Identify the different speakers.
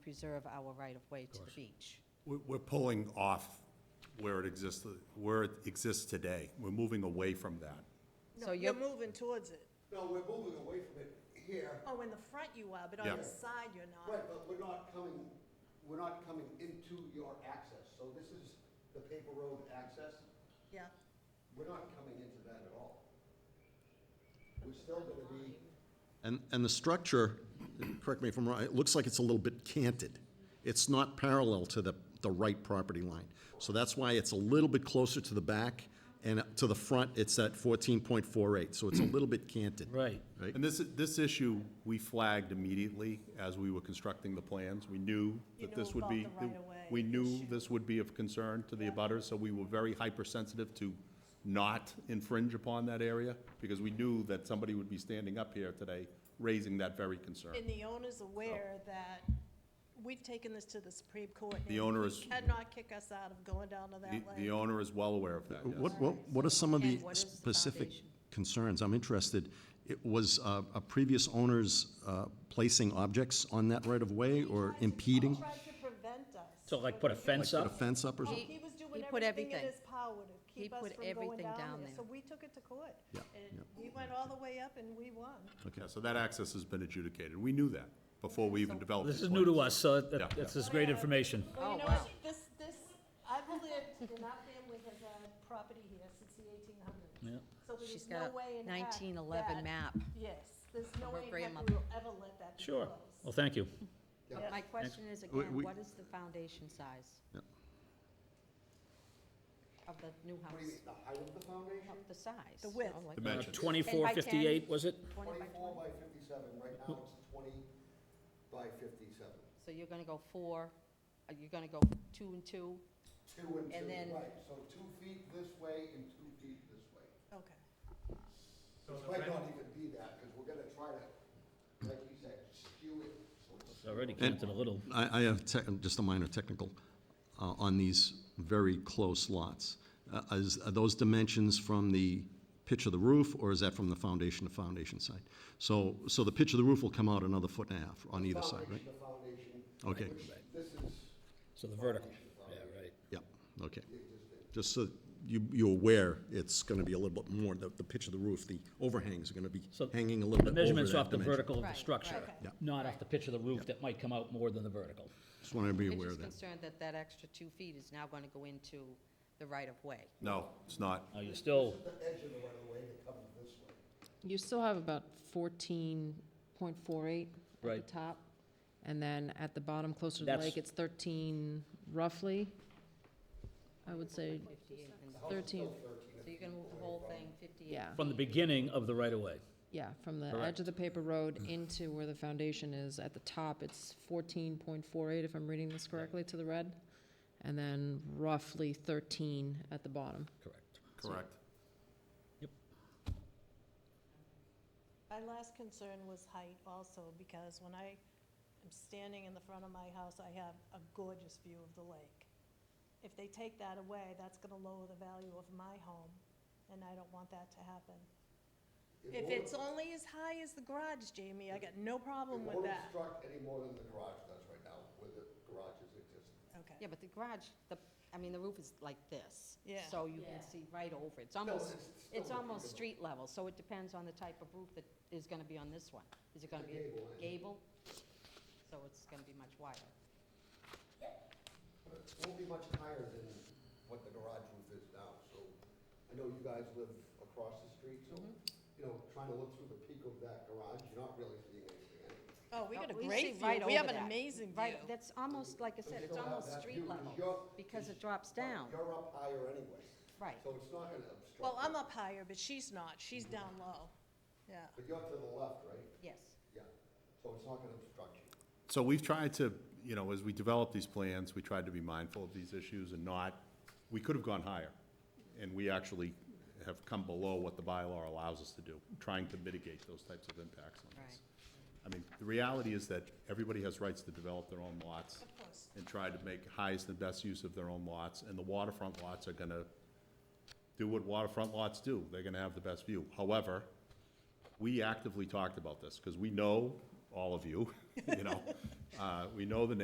Speaker 1: preserve our right-of-way to the beach.
Speaker 2: We're, we're pulling off where it exists, where it exists today. We're moving away from that.
Speaker 1: So
Speaker 3: No,
Speaker 1: you're-
Speaker 3: you're moving towards it.
Speaker 4: No, we're moving away from it here.
Speaker 3: Oh, in the front you are, but on
Speaker 2: Yeah.
Speaker 3: the side you're
Speaker 4: Right,
Speaker 3: not.
Speaker 4: but we're not coming, we're not coming into your access. So this is the paper road access.
Speaker 3: Yeah,
Speaker 4: We're not coming into that at all. We're still gonna be,
Speaker 5: And, and the structure, correct me if I'm wrong, it looks like it's a little bit canted. It's not parallel to the, the right property line. So that's why it's a little bit closer to the back, and to the front, it's at 14.48, so it's a little bit canted.
Speaker 6: Right.
Speaker 5: Right?
Speaker 2: And this, this issue, we flagged immediately as we were constructing the plans. We knew
Speaker 3: You
Speaker 2: that
Speaker 3: knew
Speaker 2: this would
Speaker 3: about
Speaker 2: be.
Speaker 3: the right-of-way
Speaker 2: We knew
Speaker 3: issue.
Speaker 2: this would be of concern to the abutters, so we were very hypersensitive to not infringe upon that area, because we knew that somebody would be standing up here today raising that very concern.
Speaker 3: and the owner's aware that we've taken this to the Supreme Court. and
Speaker 2: The owner
Speaker 3: he
Speaker 2: is-
Speaker 3: Cannot kick us out of going down to that
Speaker 2: The-
Speaker 3: lane.
Speaker 2: The owner is well aware of that, yes.
Speaker 5: What, what, what are some of the
Speaker 1: And what is the
Speaker 5: specific
Speaker 1: foundation?
Speaker 5: concerns? I'm interested. It was uh, a previous owner's uh, placing objects on that right-of-way or impeding?
Speaker 3: He tried to prevent us.
Speaker 6: So like put a fence
Speaker 5: Put a
Speaker 6: up?
Speaker 5: fence up or
Speaker 3: Oh,
Speaker 5: something?
Speaker 3: He was
Speaker 1: he
Speaker 3: doing
Speaker 1: put
Speaker 3: everything in
Speaker 1: everything.
Speaker 3: his power to
Speaker 1: He
Speaker 3: keep us
Speaker 1: put
Speaker 3: from going
Speaker 1: everything
Speaker 3: down
Speaker 1: down
Speaker 3: there.
Speaker 1: there.
Speaker 3: So we took it to court.
Speaker 5: Yeah,
Speaker 3: And we went all the way up and we won.
Speaker 1: Oh,
Speaker 2: Yeah, so that access has been adjudicated. We knew that before we even developed.
Speaker 6: This
Speaker 2: the
Speaker 6: is new to
Speaker 2: plans.
Speaker 6: us, so
Speaker 2: Yeah.
Speaker 6: that- that's this great information.
Speaker 3: Well, you know,
Speaker 1: wow.
Speaker 3: this, this, I've lived, and our family has had property here since the eighteen hundreds.
Speaker 6: Yeah.
Speaker 3: So there
Speaker 1: She's
Speaker 3: is
Speaker 1: got
Speaker 3: no
Speaker 1: a
Speaker 3: way in heck
Speaker 1: 1911
Speaker 3: that-
Speaker 1: map.
Speaker 3: Yes, there's no
Speaker 1: her
Speaker 3: way in heck
Speaker 1: grandmother.
Speaker 3: we will ever let that be
Speaker 6: Sure.
Speaker 3: closed.
Speaker 6: Well, thank you.
Speaker 3: Yeah.
Speaker 1: My question is
Speaker 5: We-
Speaker 1: again,
Speaker 5: we-
Speaker 1: what is the foundation size?
Speaker 5: Yep.
Speaker 1: Of the new
Speaker 4: what do you
Speaker 1: house,
Speaker 4: mean, the height of the foundation?
Speaker 1: of the size.
Speaker 3: The width.
Speaker 1: you know, like
Speaker 2: Dimen- Dimensions.
Speaker 6: Uh, Twenty-four fifty-eight, was it?
Speaker 1: 20 by 20.
Speaker 4: Twenty-four by fifty-seven, right now it's twenty by fifty-seven.
Speaker 1: So you're gonna go four, uh, you're gonna go two and two?
Speaker 4: Two and
Speaker 1: And then-
Speaker 4: two, right, so two feet this way and two feet this way.
Speaker 3: Okay.
Speaker 4: It might not even be that, because we're gonna try to, like you said, skew it. so it's-
Speaker 6: It's Already counted a little.
Speaker 5: I, I have tech- just a minor technical uh, on these very close lots. Uh, Is, are those dimensions from the pitch of the roof, or is that from the foundation to foundation side? So, so the pitch of the roof will come out another foot and a half on either side, right?
Speaker 4: Foundation to foundation.
Speaker 5: Okay.
Speaker 4: which This is
Speaker 6: So the vertical. Yeah, right.
Speaker 5: Yep, okay.
Speaker 4: the existing.
Speaker 5: Just so you, you're aware, it's gonna be a little bit more, the, the pitch of the roof, the overhangs are gonna be
Speaker 6: So
Speaker 5: hanging a little
Speaker 6: The
Speaker 5: bit over
Speaker 6: measurements off
Speaker 5: that
Speaker 6: the
Speaker 5: dimension.
Speaker 6: vertical of the
Speaker 1: Right,
Speaker 6: structure,
Speaker 3: right.
Speaker 5: Yeah.
Speaker 6: not off the pitch of the roof that might come out more than the vertical.
Speaker 5: Just wanted to be
Speaker 1: I'm
Speaker 5: aware
Speaker 1: just
Speaker 5: of that.
Speaker 1: concerned that that extra two feet is now gonna go into the right-of-way.
Speaker 2: No, it's not.
Speaker 6: Now, you're still,
Speaker 4: The edge of the right of way that comes this way.
Speaker 7: You still have about fourteen point four eight
Speaker 6: Right.
Speaker 7: at the top, and then at the bottom, closer to the
Speaker 6: That's-
Speaker 7: lake, it's thirteen roughly. I would say
Speaker 1: 58 and-
Speaker 7: thirteen,
Speaker 1: So you're gonna move the whole thing 58?
Speaker 7: yeah,
Speaker 6: from the beginning of the right-of-way.
Speaker 7: yeah, from the
Speaker 6: Correct.
Speaker 7: edge of the paper road into where the foundation is, at the top, it's fourteen point four eight, if I'm reading this correctly, to the red, and then roughly thirteen at the bottom.
Speaker 6: Correct.
Speaker 2: Correct.
Speaker 3: My last concern was height also, because when I am standing in the front of my house, I have a gorgeous view of the lake. If they take that away, that's gonna lower the value of my home, and I don't want that to happen. If
Speaker 4: won't-
Speaker 3: it's only as high as the garage, Jamie, I got no problem with
Speaker 4: It won't
Speaker 3: that.
Speaker 4: obstruct any more than the garage does right now, where the garage is existing.
Speaker 1: Yeah,
Speaker 3: Okay,
Speaker 1: but the garage, the, I mean, the roof is like this.
Speaker 3: Yeah.
Speaker 1: So you can see right over. It's almost,
Speaker 4: it's still
Speaker 1: it's almost
Speaker 4: reasonable.
Speaker 1: street level, so it depends on the type of roof that is gonna be on this one. Is it gonna be
Speaker 4: gable, isn't it?
Speaker 1: gable? So it's gonna be much wider.
Speaker 4: But It won't be much higher than what the garage roof is now, so I know you guys live across the street, so,
Speaker 3: Mm-hmm.
Speaker 4: you know, trying to look through the peak of that garage, you're not really seeing anything anyway.
Speaker 3: oh, we
Speaker 1: No,
Speaker 3: got a
Speaker 1: we see
Speaker 3: great view,
Speaker 1: right
Speaker 3: we
Speaker 1: over
Speaker 3: have an
Speaker 1: that.
Speaker 3: amazing view.
Speaker 1: Right, that's almost, like I said, it's
Speaker 4: still have
Speaker 1: almost
Speaker 4: that view,
Speaker 1: street
Speaker 4: 'cause
Speaker 1: level,
Speaker 4: you're-
Speaker 1: because it
Speaker 4: 'cause
Speaker 1: drops
Speaker 4: you're-
Speaker 1: down.
Speaker 4: You're up higher anyway.
Speaker 1: Right.
Speaker 4: So it's not gonna obstruct.
Speaker 3: Well, I'm
Speaker 4: it.
Speaker 3: up higher, but she's not, she's down low, yeah.
Speaker 4: But you're to the left, right?
Speaker 1: Yes.
Speaker 4: Yeah, so it's not gonna obstruct you.
Speaker 2: So we've tried to, you know, as we develop these plans, we tried to be mindful of these issues and not, we could have gone higher. And we actually have come below what the bylaw allows us to do, trying to mitigate those types of impacts on us. I mean, the reality is that everybody has rights to develop their own lots.
Speaker 3: course.
Speaker 2: And try to make highest and best use of their own lots, and the waterfront lots are gonna do what waterfront lots do, they're gonna have the best view. However, we actively talked about this, because we know all of you, you know, uh, we know the